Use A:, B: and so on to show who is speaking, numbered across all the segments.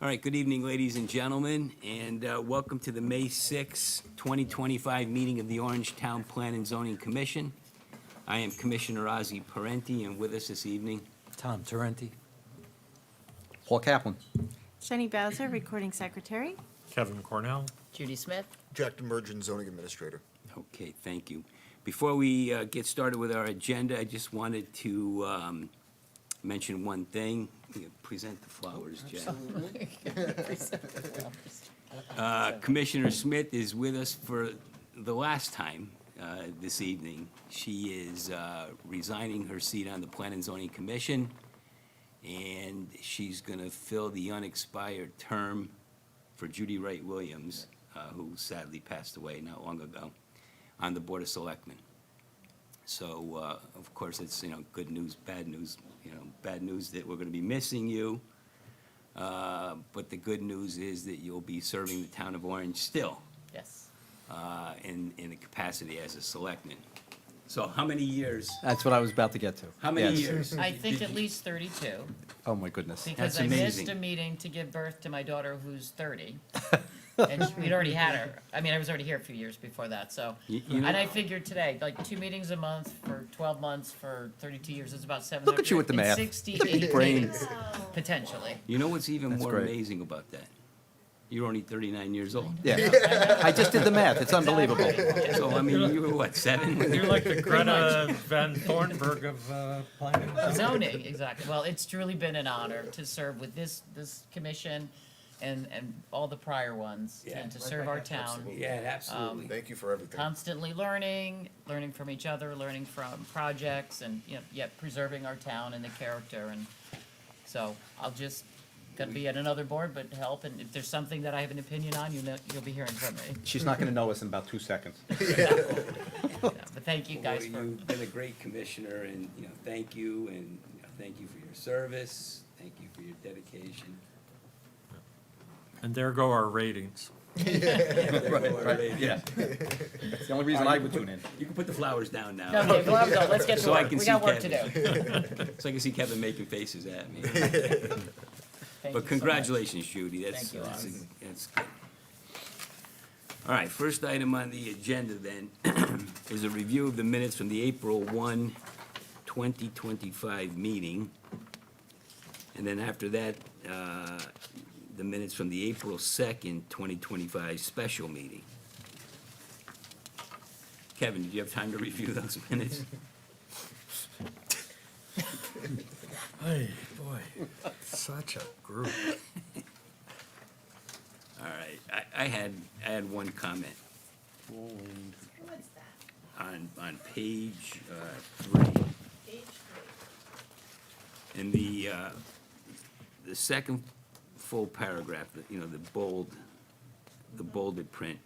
A: All right, good evening, ladies and gentlemen, and uh, welcome to the May 6, 2025 meeting of the Orange Town Plan and Zoning Commission. I am Commissioner Ozzie Parenti, and with us this evening,
B: Tom Torrenti.
C: Paul Kaplan.
D: Jenny Bowser, Recording Secretary.
E: Kevin Cornell.
F: Judy Smith,
G: Jack Demerjen, zoning administrator.
A: Okay, thank you. Before we uh, get started with our agenda, I just wanted to um, mention one thing. You Present the flowers, Jack. Uh, Commissioner Smith is with us for the last time uh, this evening. She is uh, resigning her seat on the Plan and Zoning Commission, and she's going to fill the unexpired term for Judy Wright Williams, uh, who sadly passed away not long ago on the Board of Selectmen. So, uh, of course, it's, you know, good news, bad news, you know, bad news that we're going to be missing you. Uh, But the good news is that you'll be serving the town of Orange still
F: yes.
A: uh, in, in the capacity as a selectman. So how many years,
C: That's what I was about to get to.
A: how many
C: Yes.
A: years?
F: I think at least thirty-two,
C: Oh, my goodness.
A: That's
F: because I missed
A: amazing.
F: a meeting to give birth to my daughter who's thirty. And she- we'd already had her, I mean, I was already here a few years before that, so.
A: You- you
F: And
A: know-
F: I figured today, like, two meetings a month for twelve months for thirty-two years, it's about seven.
C: Look at you with the math.
F: Sixty-eight
A: brain.
F: meetings, potentially.
A: You know what's even
C: That's
A: more
C: great.
A: amazing about that? You're only 39 years old.
C: Yeah. I just did the math. It's unbelievable.
A: So, I mean, you were what, seven? when you
E: You're like the Greta Van Thornburg of uh, planning.
F: Zoning, exactly. Well, it's truly been an honor to serve with this, this commission and, and all the prior ones,
A: Yeah.
F: and to serve our town.
A: Yeah,
F: Um,
A: absolutely.
G: Thank you for everything.
F: constantly learning, learning from each other, learning from projects, and you know, yet preserving our town and the character. And so I'll just gonna be at another board, but help. And if there's something that I have an opinion on, you know, you'll be hearing from me.
C: She's not going to know us in about two seconds.
F: Yeah, But thank you guys
A: Well,
F: for
A: You've been a great commissioner, and, you know, thank you, and you know, thank you for your service, thank you for your dedication.
E: And there go our ratings.
C: Yeah. It's the only reason I would tune in.
A: You can put the flowers down now.
F: Okay, well, I'm done. let's get to
A: So I
F: work.
A: can
F: We
A: see
F: got work to do.
A: Kevin. So I can see Kevin making faces at me.
F: Thank you so
A: But
F: much.
A: congratulations, Judy, that's,
F: Thank you,
A: that's,
F: Alex.
A: that's good. All right, first item on the agenda then is a review of the minutes from the April 1, 2025 meeting. And then after that, uh, the minutes from the April 2nd, 2025 special meeting. Kevin, did you have time to review those minutes?
E: Hey, boy, such a group.
A: All right, I, I had, I had one comment. On, on page, uh, three. In the, uh, the second full paragraph, the- you know, the bold, the bolded print.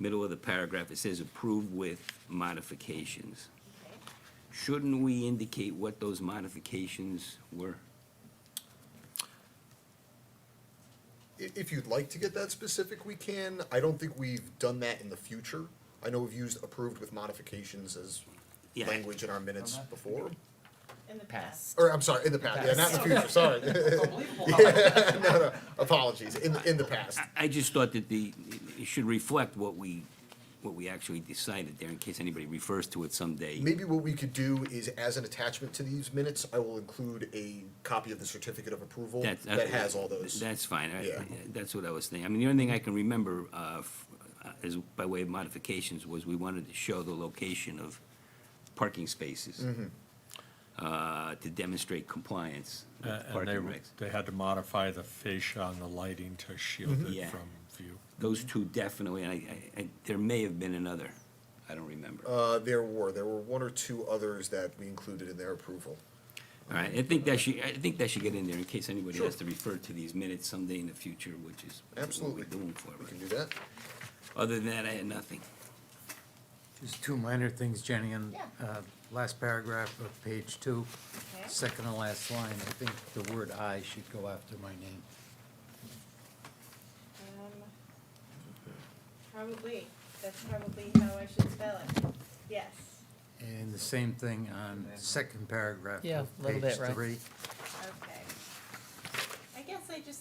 A: Middle of the paragraph, it says approve with modifications. Shouldn't we indicate what those modifications were?
G: I- If you'd like to get that specific, we can. I don't think we've done that in the future. I know we've used approved with modifications as
A: Yeah.
G: language in our minutes before.
D: In the
F: Pass.
G: Or, I'm sorry, in the past, yeah, not in the future, sorry. No, no, apologies, in, in the past.
A: I just thought that the, it should reflect what we, what we actually decided there, in case anybody refers to it someday.
G: Maybe what we could do is, as an attachment to these minutes, I will include a copy of the certificate of approval
A: That-
G: that has all those.
A: That's fine, I-
G: Yeah.
A: that's what I was thinking. I mean, the only thing I can remember, uh, f- uh, as, by way of modifications, was we wanted to show the location of parking spaces
G: Mm-hmm.
A: uh, to demonstrate compliance with
E: Uh, And
A: parking
E: they,
A: regs.
E: they had to modify the fascia on the lighting to shield
A: Yeah.
E: it from view.
A: Those two definitely, and I, I, I- there may have been another, I don't remember.
G: Uh, there were, there were one or two others that we included in their approval.
A: All right, I think that should, I think that should get in there in case anybody has to refer to these minutes someday in the future, which is what
G: Absolutely.
A: we're doing for
G: We can
A: it.
G: do that.
A: Other than that, I had nothing.
H: Just two minor things, Jenny, on
D: Yeah.
H: uh, last paragraph of page two,
D: Okay.
H: second to last line, I think the word "I" should go after my name.
D: Um, Probably, that's probably how I should spell it. Yes.
H: And the same thing on second paragraph
F: Yeah,
H: of
F: little
H: page
F: bit, right.
H: three.
D: Okay. I guess I just